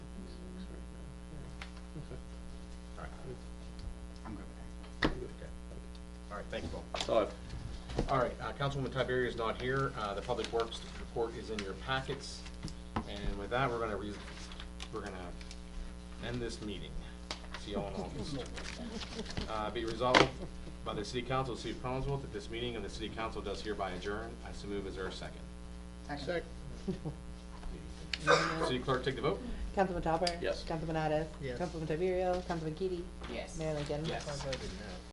right, thank you both. So, All right, uh, Councilwoman Tiberio is not here. Uh, The Public Works report is in your packets. And with that, we're gonna, re- we're gonna end this meeting. See y'all in August. Uh, Be resolved by the City Council of the City of Collinsville that this meeting of the City Council does hereby adjourn. I so move. Is there a second? Second. City Clerk, take the vote. Councilman Topper? Yes. Councilman Addis? Yes. Councilman Tiverio? Councilman Keady? Yes. Mayor Lincoln? Yes.